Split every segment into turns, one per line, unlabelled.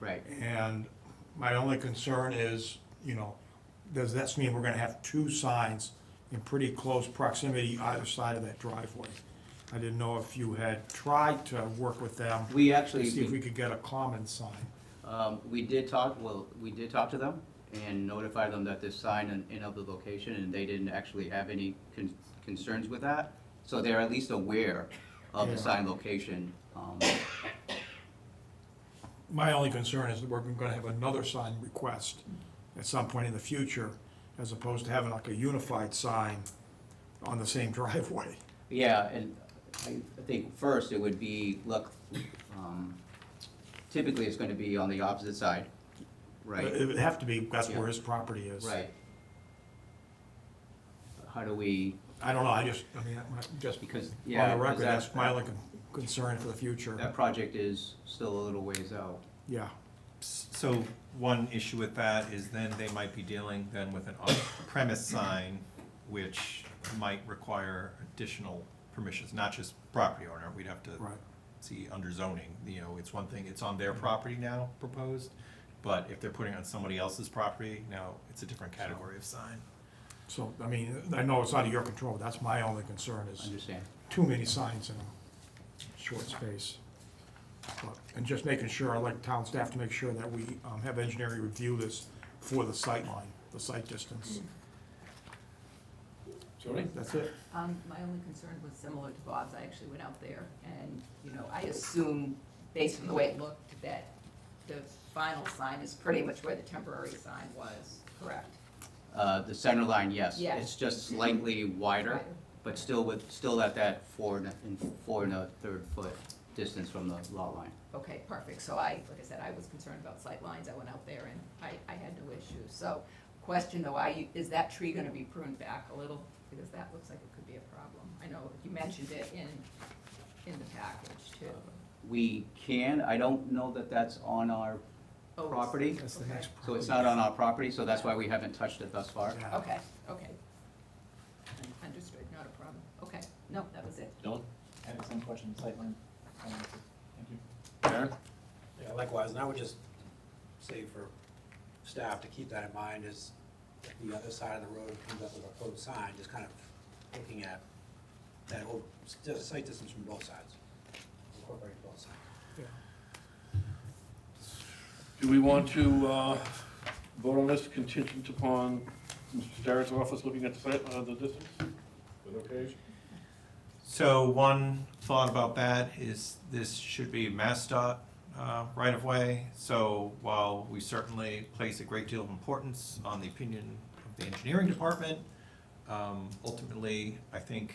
Right.
And my only concern is, you know, does this mean we're gonna have two signs in pretty close proximity either side of that driveway? I didn't know if you had tried to work with them,
We
to see if we
actually,
could get a common sign.
um, we did talk, well, we did talk to them and notify them that this sign and, and of the location, and they didn't actually have any con- concerns with that. So they're at least aware of the
Yeah.
sign location, um,
My only concern is that we're gonna have another sign request at some point in the future, as opposed to having like a unified sign on the same driveway.
Yeah, and I I think first it would be, look, um, typically it's gonna be on the opposite side, right?
It would have to be, that's where his property is.
Right. How do we,
I don't know, I just, I mean, I- just
because,
on
yeah,
the
'cause
record, that's
that-
my only con- concern for the
That
future,
project is still a little ways out.
yeah.
So one issue with that is then they might be dealing then with an off-premise sign, which might require additional permissions, not just property owner, we'd have to
Right.
see under zoning, you know, it's one thing, it's on their property now proposed, but if they're putting it on somebody else's property, now it's a different category of sign.
So, I mean, I know it's out of your control, but that's my only concern is
Understand?
too many signs in a short space. But- And just making sure, I'd like town staff to make sure that we um, have engineering review this for the sight line, the sight distance. So That's it.
Um, my only concern was similar to Bob's, I actually went out there and, you know, I assume, based on the way it looked, that the final sign is pretty much where the temporary sign was, correct?
Uh, the center line, yes.
Yeah.
It's just slightly wider,
Wider.
but still with, still at that four and, a- and four and a third foot distance from the lot line.
Okay, perfect, so I, like I said, I was concerned about sight lines. I went out there and I, I had no issues, so, question though, I, is that tree gonna be pruned back a little? Because that looks like it could be a problem, I know you mentioned it in, in the package too.
We can, I don't know that that's on our
Oh, it's-
property.
That's the
Okay.
next
So it's not
problem.
on our property, so that's why we haven't touched it thus far.
Yeah.
Okay, okay. Understood, not a problem. Okay, no, that was it.
Dylan? I have the same question, sightline. Thank you.
Aaron?
Yeah, likewise, and I would just say for staff to keep that in mind is if the other side of the road comes up with a code sign, just kind of looking at that whole, just sight distance from both sides, incorporating both sides.
Do we want to uh, vote on this contingent upon Mr. Starrett's office looking at the site, uh, the distance? Is that okay?
So one thought about that is this should be MassDOT uh, right-of-way. So while we certainly place a great deal of importance on the opinion of the engineering department, um, ultimately, I think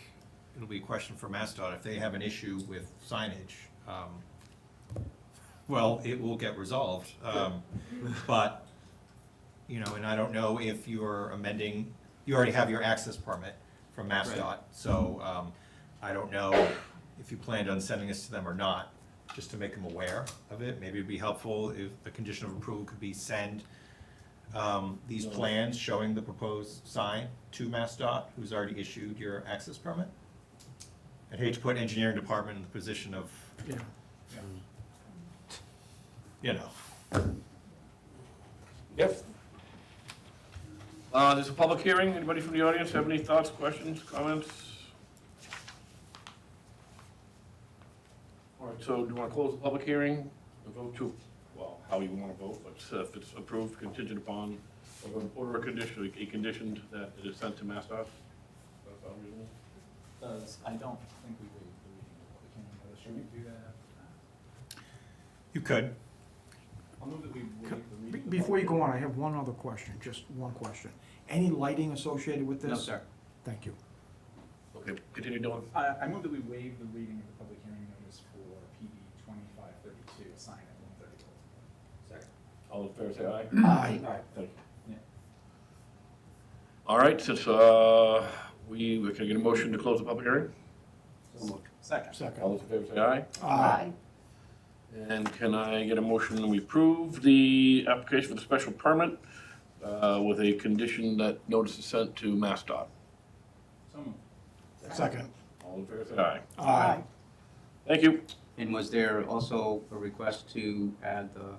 it'll be a question for MassDOT if they have an issue with signage. um, Well, it will get resolved. Um, But, you know, and I don't know if you're amending, you already have your access permit from MassDOT. So um, I don't know if you planned on sending this to them or not, just to make them aware of it. Maybe it'd be helpful if the condition of approval could be send um, these plans showing the proposed sign to MassDOT, who's already issued your access permit. I'd hate to put engineering department in the position of,
Yeah.
you know,
Yep. Uh, There's a public hearing. Anybody from the audience have any thoughts, questions, comments? All right, so do you want to close the public hearing and vote to, well, how you want to vote, but uh, if it's approved contingent upon or an order of condition, a condition that it is sent to Mass Dot? That sound reasonable?
Does, I don't think we waive the reading of public hearing, but should we do that after that?
you could.
I'll move that we waive the
Be-
reading. of the
Before you
public
go on, I have one other question, just one question. Any lighting associated with this?
No, sir.
Thank you.
Okay, continue, Dylan.
hearing. I, I move that we waive the reading of the public hearing notice for PB twenty-five thirty-two, a sign at one thirty Baltimore.
All those fair say aye.
Uh,
Aye.
Thank you.
Yeah.
All right, since uh, we, we can I get a motion to close the public hearing?
Second.
All
Second.
those in favor say aye.
Aye.
And can I get a motion that we approve the application for the special permit uh, with a condition that notice is sent to MassDOT?
So moved.
Second.
All in favor say aye.
Aye.
Thank you.
And was there also a request to add the